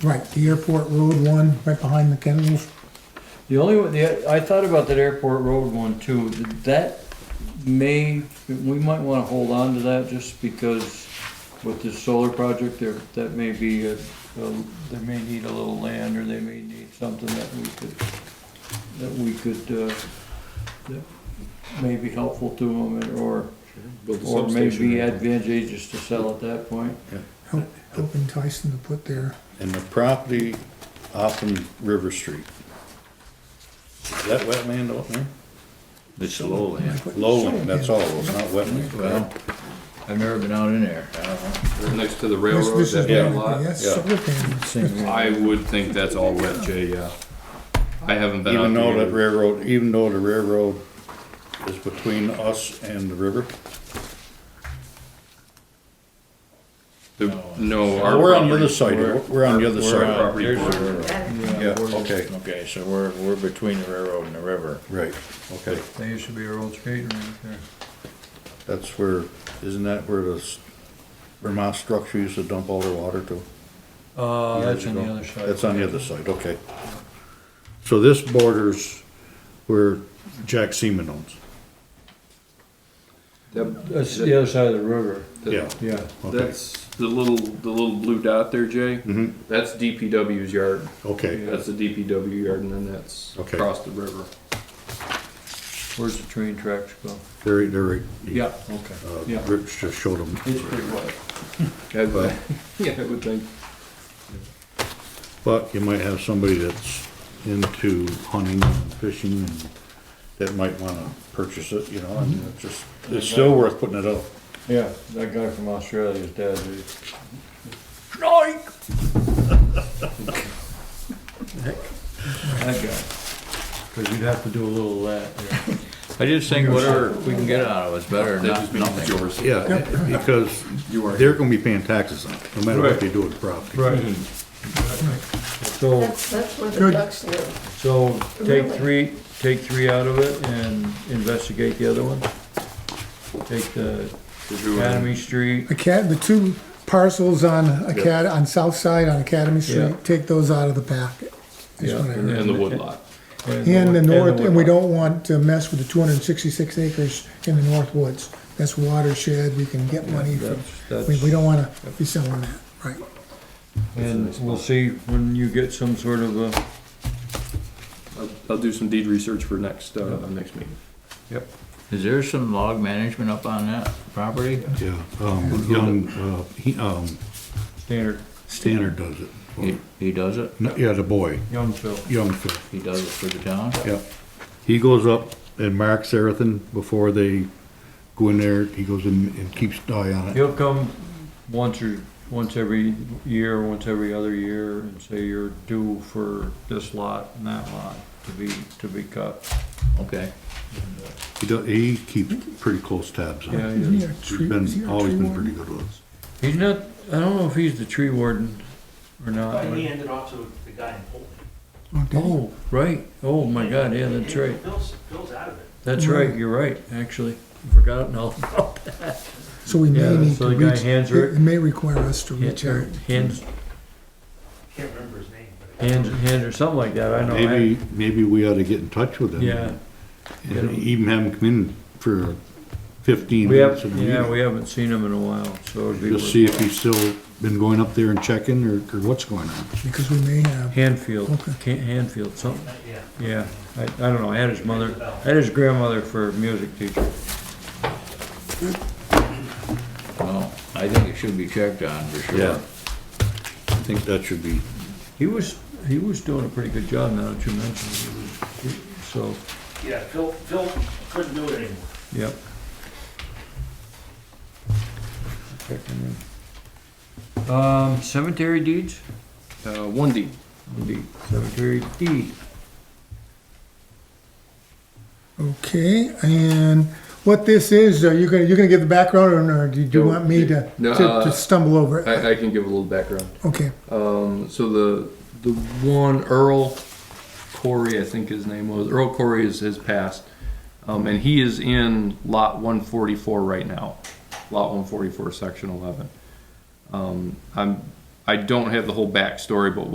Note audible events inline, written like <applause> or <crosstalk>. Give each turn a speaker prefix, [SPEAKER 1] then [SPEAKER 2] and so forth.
[SPEAKER 1] Right, the airport road one, right behind the kennels.
[SPEAKER 2] The only one, the, I thought about that airport road one too, that may, we might wanna hold on to that just because with this solar project, there, that may be a, a- they may need a little land or they may need something that we could, that we could, uh, that may be helpful to them or,
[SPEAKER 3] Build a
[SPEAKER 2] or
[SPEAKER 3] substation
[SPEAKER 2] maybe
[SPEAKER 3] or-
[SPEAKER 2] advantageous to sell at that point.
[SPEAKER 1] Help help entice them to put their,
[SPEAKER 3] And the property off in River Street. Is that wetland out there?
[SPEAKER 4] It's a lowland.
[SPEAKER 3] Lowland, that's all, it's not wetland.
[SPEAKER 4] Well, I've never been out in there. I don't know.
[SPEAKER 5] Next to the
[SPEAKER 1] this
[SPEAKER 5] railroad,
[SPEAKER 1] this is,
[SPEAKER 5] that
[SPEAKER 3] yeah,
[SPEAKER 5] big
[SPEAKER 1] what-
[SPEAKER 5] lot.
[SPEAKER 1] that's
[SPEAKER 3] yeah.
[SPEAKER 1] solar panels.
[SPEAKER 4] Same here.
[SPEAKER 5] I would think that's all wet, Jay, yeah. I haven't been out
[SPEAKER 3] Even though
[SPEAKER 5] there.
[SPEAKER 3] the railroad, even though the railroad is between us and the river.
[SPEAKER 5] The- No, our
[SPEAKER 3] Oh, We're on the other
[SPEAKER 5] property-
[SPEAKER 3] side, of- we're on the other
[SPEAKER 4] We're out-
[SPEAKER 3] side.
[SPEAKER 5] property
[SPEAKER 4] there's the
[SPEAKER 5] border.
[SPEAKER 4] railroad.
[SPEAKER 3] Yeah, okay,
[SPEAKER 4] Okay, so we're, we're between the railroad and the river.
[SPEAKER 3] right, okay.
[SPEAKER 2] That used to be our old skating rink there.
[SPEAKER 3] That's where, isn't that where the s- Vermont structure used to dump all their water to?
[SPEAKER 2] Uh, that's on the
[SPEAKER 3] years ago?
[SPEAKER 2] other side.
[SPEAKER 3] That's on the other side, okay. So this borders where Jack Seaman owns,
[SPEAKER 5] That-
[SPEAKER 2] That's the other side of the river,
[SPEAKER 5] that-
[SPEAKER 3] yeah,
[SPEAKER 2] yeah.
[SPEAKER 3] okay,
[SPEAKER 5] That's the little, the little blue dot there, Jay.
[SPEAKER 3] Mhm.
[SPEAKER 5] That's DPW's yard.
[SPEAKER 3] okay.
[SPEAKER 5] That's the DPW yard and then that's
[SPEAKER 3] Okay.
[SPEAKER 5] across the river.
[SPEAKER 2] Where's the train tracks go?
[SPEAKER 3] They're, they're.
[SPEAKER 2] Yeah, okay.
[SPEAKER 3] Uh,
[SPEAKER 2] yeah.
[SPEAKER 3] Rich just showed them.
[SPEAKER 2] It's pretty wet.
[SPEAKER 5] <laughs> I'd- <laughs> Yeah, I would think.
[SPEAKER 3] But you might have somebody that's into hunting and fishing and that might wanna purchase it, you know,
[SPEAKER 2] Mm-hmm.
[SPEAKER 3] and it's just, it's still worth putting it up.
[SPEAKER 2] Yeah, that guy from Australia's dad, he- that guy. Cause you'd have to do a little of that.
[SPEAKER 4] I just think whatever we can get out of it's better than
[SPEAKER 5] That just
[SPEAKER 4] not-
[SPEAKER 5] means it's
[SPEAKER 4] nothing.
[SPEAKER 5] yours.
[SPEAKER 3] Yeah, because
[SPEAKER 5] You are.
[SPEAKER 3] they're gonna be paying taxes on it, no matter what
[SPEAKER 2] Right.
[SPEAKER 3] they do with the property.
[SPEAKER 2] Right. So,
[SPEAKER 6] That's, that's where the
[SPEAKER 1] Good.
[SPEAKER 6] ducks live.
[SPEAKER 2] so take
[SPEAKER 6] Really?
[SPEAKER 2] three, take three out of it and investigate the other one. Take the Academy Street,
[SPEAKER 1] Acad, the two parcels on Acad, on south side on Academy
[SPEAKER 2] Yeah.
[SPEAKER 1] Street, take those out of the packet. is
[SPEAKER 2] Yeah,
[SPEAKER 1] what I
[SPEAKER 2] and
[SPEAKER 1] heard.
[SPEAKER 5] And the woodlot.
[SPEAKER 1] And the north, and we
[SPEAKER 2] woodlot.
[SPEAKER 1] don't want to mess with the two hundred and sixty-six acres in the north woods. That's watershed, we can get money from,
[SPEAKER 2] that's-
[SPEAKER 1] we, we don't wanna be selling that, right?
[SPEAKER 2] And we'll see when you get some sort of a,
[SPEAKER 5] I'll, I'll do some deed research for next, uh, next meeting.
[SPEAKER 4] Is there some log management up on that property?
[SPEAKER 3] Yeah, um, young, uh, he, um,
[SPEAKER 2] standard
[SPEAKER 3] Stannard does it.
[SPEAKER 4] He, he does it?
[SPEAKER 3] No, Yeah, the boy,
[SPEAKER 2] young fill.
[SPEAKER 3] young Phil,
[SPEAKER 4] He does it for the town?
[SPEAKER 3] yeah. He goes up and marks everything before they go in there, he goes in and keeps eye on it.
[SPEAKER 2] He'll come once or, once every year, once every other year and say you're due for this lot and that lot to be, to be cut.
[SPEAKER 4] Okay.
[SPEAKER 3] He does, he keeps pretty close tabs on
[SPEAKER 2] Yeah,
[SPEAKER 3] it.
[SPEAKER 1] Isn't
[SPEAKER 2] yeah.
[SPEAKER 1] he a
[SPEAKER 3] He's
[SPEAKER 1] tree- is he
[SPEAKER 3] been,
[SPEAKER 1] a
[SPEAKER 3] always
[SPEAKER 1] tree
[SPEAKER 3] been
[SPEAKER 1] warden?
[SPEAKER 3] pretty good with us.
[SPEAKER 2] He's not, I don't know if he's the tree warden or not.
[SPEAKER 7] But he ended up to the guy in Poland.
[SPEAKER 1] Oh, did he?
[SPEAKER 2] Oh, right. Oh, my God, yeah, that's right.
[SPEAKER 7] Bill's, Bill's out of it.
[SPEAKER 2] That's right, you're right, actually. Forgot it now.
[SPEAKER 1] So we
[SPEAKER 2] Yeah,
[SPEAKER 1] may need
[SPEAKER 2] so
[SPEAKER 1] to
[SPEAKER 2] the guy
[SPEAKER 1] reach,
[SPEAKER 2] hands
[SPEAKER 1] it
[SPEAKER 2] her-
[SPEAKER 1] it may require us to reach out.
[SPEAKER 2] Hands,
[SPEAKER 7] Can't remember his name, but.
[SPEAKER 2] hands, hands or something like that, I know. Oh, I-
[SPEAKER 3] Maybe, maybe we ought to get in touch with him.
[SPEAKER 2] Yeah.
[SPEAKER 3] And even have him come in for fifteen
[SPEAKER 2] We
[SPEAKER 3] minutes.
[SPEAKER 2] have,
[SPEAKER 3] of the
[SPEAKER 2] yeah,
[SPEAKER 3] meeting.
[SPEAKER 2] we haven't seen him in a while, so it'd be.
[SPEAKER 3] Just see if he's still been going up there and checking or, or what's going on.
[SPEAKER 1] Because we may have,
[SPEAKER 2] Hanfield,
[SPEAKER 1] Okay.
[SPEAKER 2] Can- Hanfield, something,
[SPEAKER 7] Yeah.
[SPEAKER 2] yeah, I, I don't know, I had his mother, I had his grandmother for a music teacher.
[SPEAKER 4] Well, I think it should be checked on for
[SPEAKER 3] Yeah.
[SPEAKER 4] sure.
[SPEAKER 3] I think that should be,
[SPEAKER 2] He was, he was doing a pretty good job now that you mentioned it, he was- so,
[SPEAKER 7] Yeah, Phil, Phil couldn't do it anymore.
[SPEAKER 2] yep. Um, cemetery deeds?
[SPEAKER 5] Uh, one deed.
[SPEAKER 2] Deed, cemetery deed.
[SPEAKER 1] okay, and what this is, are you gonna, you're gonna give the background, or or do you
[SPEAKER 5] No,
[SPEAKER 1] want me to,
[SPEAKER 5] no,
[SPEAKER 1] to to
[SPEAKER 5] uh,
[SPEAKER 1] stumble over it?
[SPEAKER 5] I, I can give a little background.
[SPEAKER 1] Okay,
[SPEAKER 5] Um, so the the one Earl Corey, I think his name was Earl Corey, is has passed, um, and he is in lot 144 right now, lot 144, section 11. Um, I'm I don't have the whole backstory, but